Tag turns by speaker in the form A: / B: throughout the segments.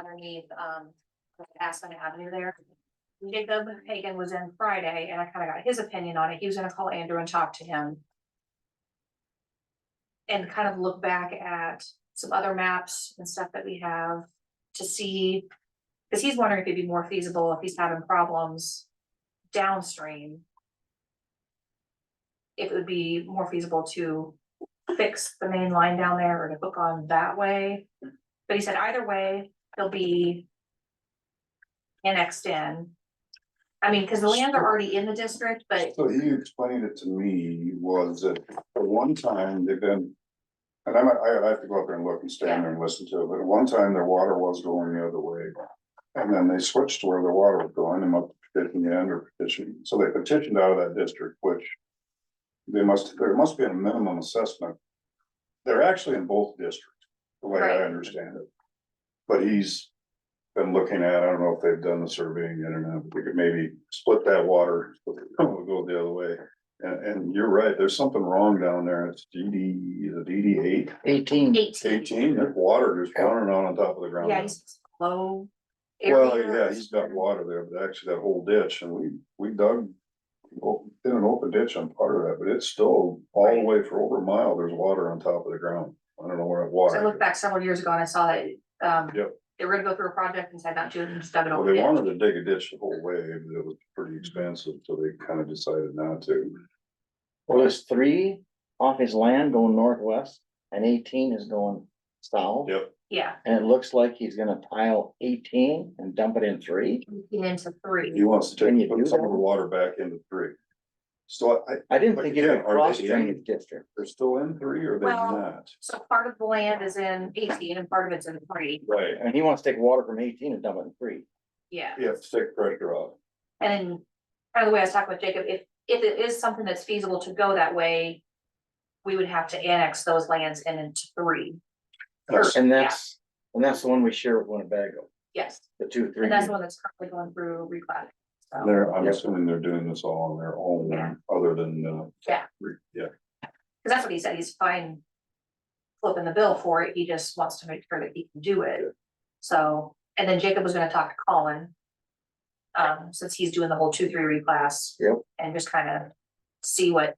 A: underneath, um, Aspen Avenue there. Jacob Hagan was in Friday and I kind of got his opinion on it. He was gonna call Andrew and talk to him. And kind of look back at some other maps and stuff that we have to see. Cause he's wondering if it'd be more feasible if he's having problems downstream. If it would be more feasible to fix the main line down there or to hook on that way. But he said either way, they'll be annexed in. I mean, cause the lands are already in the district, but
B: So he explained it to me was that at one time they've been. And I might, I I have to go up there and look and stand there and listen to it, but at one time their water was going the other way. And then they switched to where their water was going and up petitioning the end or petitioning, so they petitioned out of that district, which. They must, there must be a minimum assessment. They're actually in both districts, the way I
A: Right.
B: understand it. But he's been looking at, I don't know if they've done the surveying yet or not, but we could maybe split that water, split it, we'll go the other way. And, and you're right, there's something wrong down there, it's DD, is it DD eight,
C: Eighteen,
A: eighteen,
B: eighteen, there's water just running on on top of the ground.
A: yeah, he's low.
B: Well,
A: area.
B: yeah, he's got water there, but actually that whole ditch, and we, we dug. o- Did an open ditch on part of that, but it's still all the way for over a mile, there's water on top of the ground, I don't know where that
A: So I
B: water.
A: looked back several years ago and I saw that, um,
B: Yep.
A: they were gonna go through a project and said not to, and just dug it Mm-hmm.
B: Well,
A: over.
B: they
A: there.
B: wanted to dig a ditch the whole way, but it was pretty expensive, so they kind of decided not to.
C: well, there's three off his land going northwest and eighteen is going south.
B: Yep.
A: Yeah,
C: And it looks like he's gonna tile eighteen and dump it in three.
A: looking into
B: He
A: three,
B: wants to
C: Can you
B: take,
C: do
B: put some of
C: that?
B: the water back into three. So I,
C: I didn't
B: But
C: think it was
B: again,
C: a
B: are they
C: cross
B: in?
C: drainage district.
B: they're still in three or they're
A: Well-
B: not?
A: so part of the land is in eighteen and part of it's in three,
B: Right.
C: And he wants to take water from eighteen and dump it in three.
A: yeah.
B: You have to take pressure off.
A: And then, kind of the way I was talking with Jacob, if, if it is something that's feasible to go that way, we would have to annex those lands in into three,
B: That's-
C: And that's, and that's the one we share with Winnebago,
A: yes,
C: the two, three.
A: and that's the one that's currently going through reclat. So,
B: They're, I'm
C: Yep.
B: assuming they're doing this all on their
A: Yeah.
B: own, other than, uh.
A: Yeah.
B: re- Yeah,
A: cause that's what he said, he's fine flipping the bill for it, he just wants to make sure that he can do it. So, and then Jacob was gonna talk to Colin. Um, since he's doing the whole two, three reclass.
C: Yep.
A: And just kind of see what,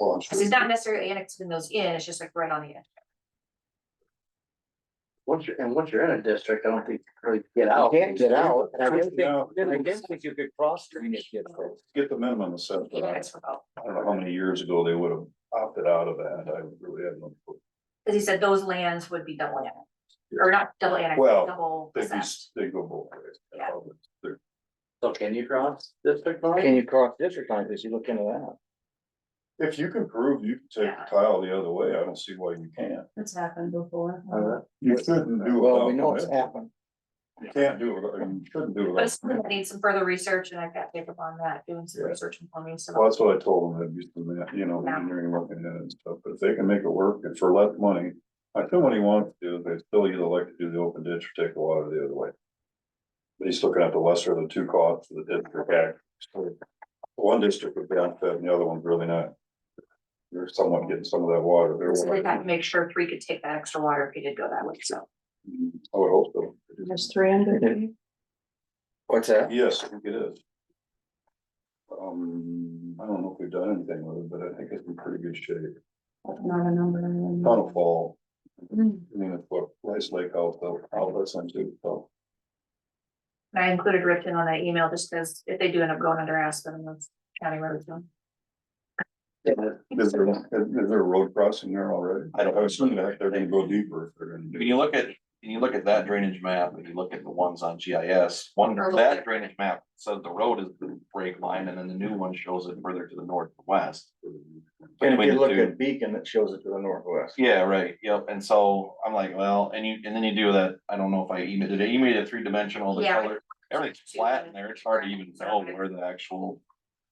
B: well,
A: cause he's not necessarily annexing those in, it's just like right on the edge.
D: Once you're, and once you're in a district, I don't think you really get
C: You
D: out.
C: can't get out. and I didn't think-
B: Now,
C: I didn't think you could cross drainage district.
B: Get the minimum assessment. I
A: Annex for both.
B: don't know how many years ago they would have opted out of that, I really have no. clue.
A: Cause he said those lands would be double annexed, or not double annexed,
B: Well,
A: double
B: They'd be,
A: assessed.
B: they go both ways.
A: Yeah.
B: They're-
D: So can you cross district line?
C: Can you cross district lines? Did you look into that?
B: If you can prove you can take
A: Yeah.
B: the tile the other way, I don't see why you can't.
A: That's happened before.
D: Uh,
B: You shouldn't do it.
C: Well,
B: without
C: we know it's
B: permission.
C: happened.
B: You can't do it, without- you shouldn't do it.
A: But
B: without
A: it's something that needs some further research and I've got Jacob on that, doing some
B: Yeah.
A: research and for me,
B: Well,
A: so.
B: that's what I told them, I'd use the, ma- you know,
A: Yeah.
B: engineering working at it and stuff, but if they can make it work and for less money. I think what he wants to do, is they still either like to do the open ditch or take the water the other way. But he's looking at the lesser of the two costs for the district act. So, One district would be unfit and the other one's really not. You're somewhat getting some of that water. They're
A: So they got to
B: like,
A: make sure three could take that extra water if he did go that way, so.
B: "Mm, I would hope so.
E: There's three under three.
C: What's that?
B: Yes, I think it is. Um, I don't know if we've done anything with it, but I think it's in pretty good shape.
E: Not a number.
B: Not a fall.
E: Mm.
B: I mean, it's what Rice Lake uh, out though, out that's into, so.
A: And I included Ripton on that email just because if they do end up going under Aspen, that's county road. so.
B: Is there, is there a road crossing there already?
F: I don't-
B: I was thinking that they're gonna go deeper if they're gonna
F: When
B: do.
F: you look at, when you look at that drainage map, and you look at the ones on GIS, one,
A: Or look at-
F: that drainage map says the road is the break line, and then the new one shows it further to the northwest.
C: And if you
F: Between the
C: look
F: two.
C: at Beacon, that shows it to the northwest.
F: Yeah, right, yep, and so I'm like, well, and you, and then you do that, I don't know if I emailed, did I email a three dimensional, the
A: Yeah.
F: color, everything's flat in there, it's hard to even tell where the actual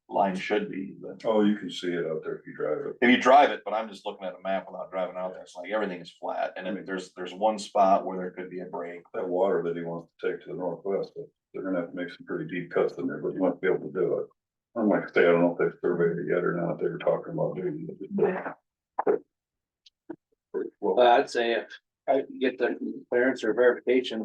F: line should be, but.
B: Oh, you can see it out there if you drive it.
F: if you drive it, but I'm just looking at a map without driving out there, it's like everything is flat, and then there's, there's one spot where there could be a break.
B: That water that he wants to take to the northwest, but they're gonna have to make some pretty deep cuts in there, but you might be able to do it. I'm like, I say, I don't know if they've surveyed it yet or not, they were talking about doing. it.
E: Yeah.
B: Well,
D: Well, I'd say if,
F: I get the clearance or verification